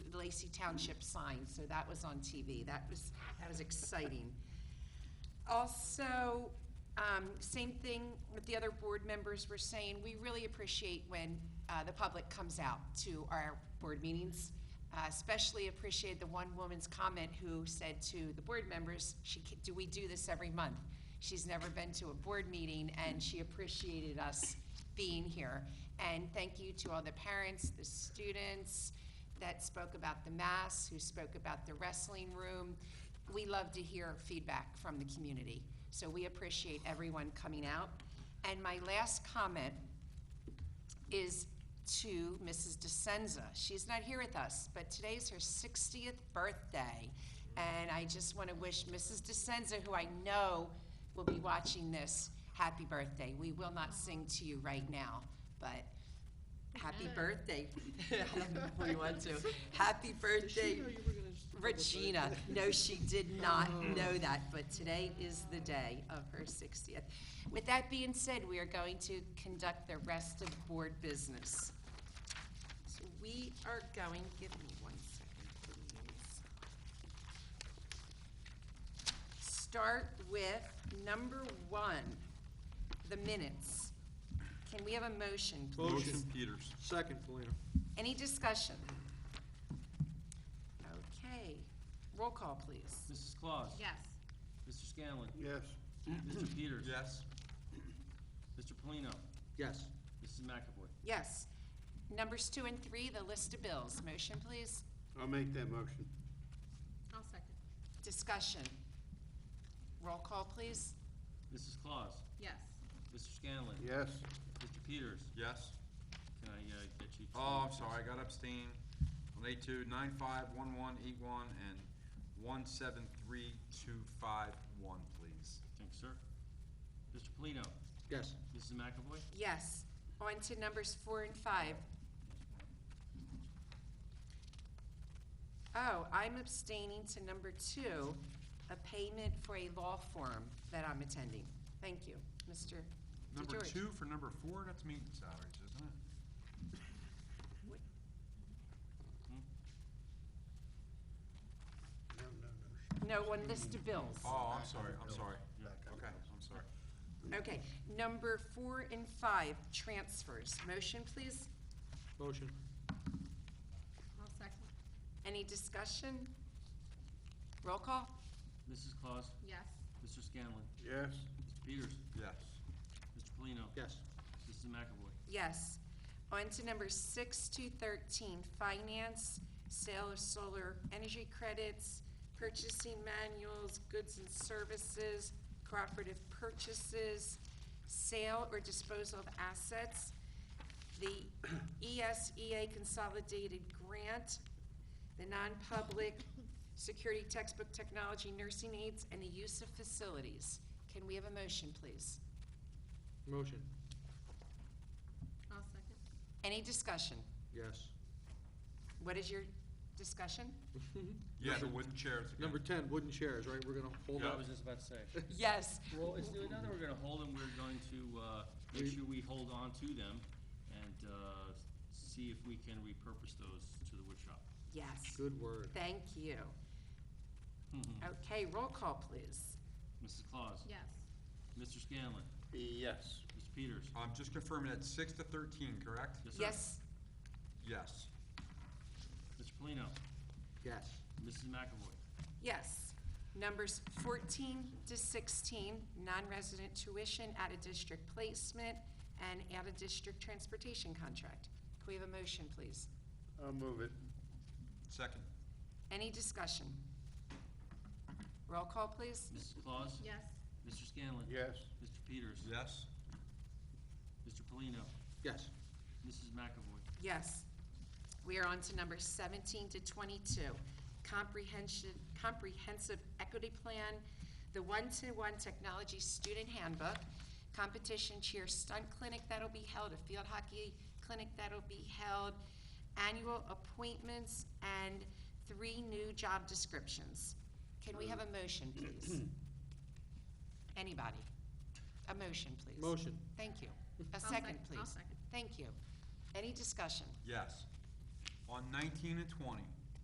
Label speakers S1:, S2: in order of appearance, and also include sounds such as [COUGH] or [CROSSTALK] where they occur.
S1: Lacey Township sign, so that was on TV. That was, that was exciting. Also, um, same thing with the other board members were saying, we really appreciate when, uh, the public comes out to our board meetings. Uh, especially appreciate the one woman's comment who said to the board members, she, ca- do we do this every month? She's never been to a board meeting and she appreciated us being here. And thank you to all the parents, the students that spoke about the mass, who spoke about the wrestling room. We love to hear feedback from the community, so we appreciate everyone coming out. And my last comment is to Mrs. DeSenza. She's not here with us, but today's her 60th birthday. And I just want to wish Mrs. DeSenza, who I know will be watching this, happy birthday. We will not sing to you right now, but happy birthday. I don't know [LAUGHS] if we want to. Happy birthday, Regina. No, she did not know that, but today is the day of her 60th. With that being said, we are going to conduct the rest of board business. So we are going, give me one second, please. Start with number one, the minutes. Can we have a motion, please?
S2: Motion Peters.
S3: Second, Polino.
S1: Any discussion? Okay, roll call, please.
S4: Mrs. Claus.
S5: Yes.
S4: Mr. Scanlon.
S3: Yes.
S5: [CLEARS THROAT]
S4: Mr. Peters.
S2: Yes.
S4: Mr. Polino.
S3: Yes.
S4: Mrs. McAvoy.
S1: Yes. Numbers two and three, the list of bills. Motion, please.
S3: I'll make that motion.
S5: I'll second.
S1: Discussion. Roll call, please.
S4: Mrs. Claus.
S5: Yes.
S4: Mr. Scanlon.
S3: Yes.
S4: Mr. Peters.
S2: Yes.
S4: Can I uh, get you? to-
S2: Oh, I'm sorry, I got abstain on eight two, nine five, one one, eight one, and one seven three two five one, please.
S4: Thanks, sir. Mr. Polino.
S3: Yes.
S4: Mrs. McAvoy.
S1: Yes. On to numbers four and five. Oh, I'm abstaining to number two, a payment for a law forum that I'm attending. Thank you, Mr.
S2: Number
S1: DeGeorge.
S2: two for number four, that's meeting salaries, isn't it?
S3: No, no, no.
S1: No, on list of bills.
S2: Oh, I'm sorry, I'm sorry. Okay, I'm sorry.
S1: Okay, number four and five, transfers. Motion, please.
S3: Motion.
S5: I'll second.
S1: Any discussion? Roll call?
S4: Mrs. Claus.
S5: Yes.
S4: Mr. Scanlon.
S3: Yes.
S4: Mr. Peters.
S2: Yes.
S4: Mr. Polino.
S3: Yes.
S4: Mrs. McAvoy.
S1: Yes. On to number six to thirteen, finance, sale of solar energy credits, purchasing manuals, goods and services, cooperative purchases, sale or disposal of assets, the E ESEA consolidated grant, the non-public security textbook technology nursing aids, and the use of facilities. Can we have a motion, please?
S3: Motion.
S5: I'll second.
S1: Any discussion?
S3: Yes.
S1: What is your discussion?
S2: Yeah, the wooden chairs
S3: [LAUGHS]
S2: again.
S3: Number ten, wooden chairs, right? We're gonna hold
S4: I
S3: up.
S4: was just about to say.
S1: Yes.
S4: Well, it's doing another, we're gonna hold them, we're going to, uh, make sure we hold on to them and, uh, see if we can repurpose those to the wood shop.
S1: Yes.
S3: Good word.
S1: Thank you. Okay, roll call, please.
S4: Mrs. Claus.
S5: Oh. Yes.
S4: Mr. Scanlon.
S3: Yes.
S4: Mr. Peters.
S2: I'm just confirming that's six to thirteen, correct?
S4: sir.
S1: Yes,
S2: Yes.
S4: Mr. Polino.
S3: Yes.
S4: Mrs. McAvoy.
S1: yes. Numbers fourteen to sixteen, non-resident tuition, out-of-district placement, and out-of-district transportation contract. Can we have a motion, please?
S3: I'll move it.
S2: Second.
S1: Any discussion? Roll call, please.
S4: Mrs. Claus.
S5: Yes.
S4: Mr. Scanlon.
S3: Yes.
S4: Mr. Peters.
S2: Yes.
S4: Mr. Polino.
S3: Yes.
S4: Mrs. McAvoy.
S1: Yes. We are on to number 17 to 22, comprehension, comprehensive equity plan, the one-to-one technology student handbook, competition cheer stunt clinic that'll be held, a field hockey clinic that'll be held, annual appointments, and three new job descriptions. Can we have a motion, please? Anybody? A motion, please.
S3: Motion.
S1: Thank you. A
S5: I'll
S1: second,
S5: sec-
S1: please.
S5: I'll second.
S1: Thank you. Any discussion?
S2: Yes. On nineteen and twenty,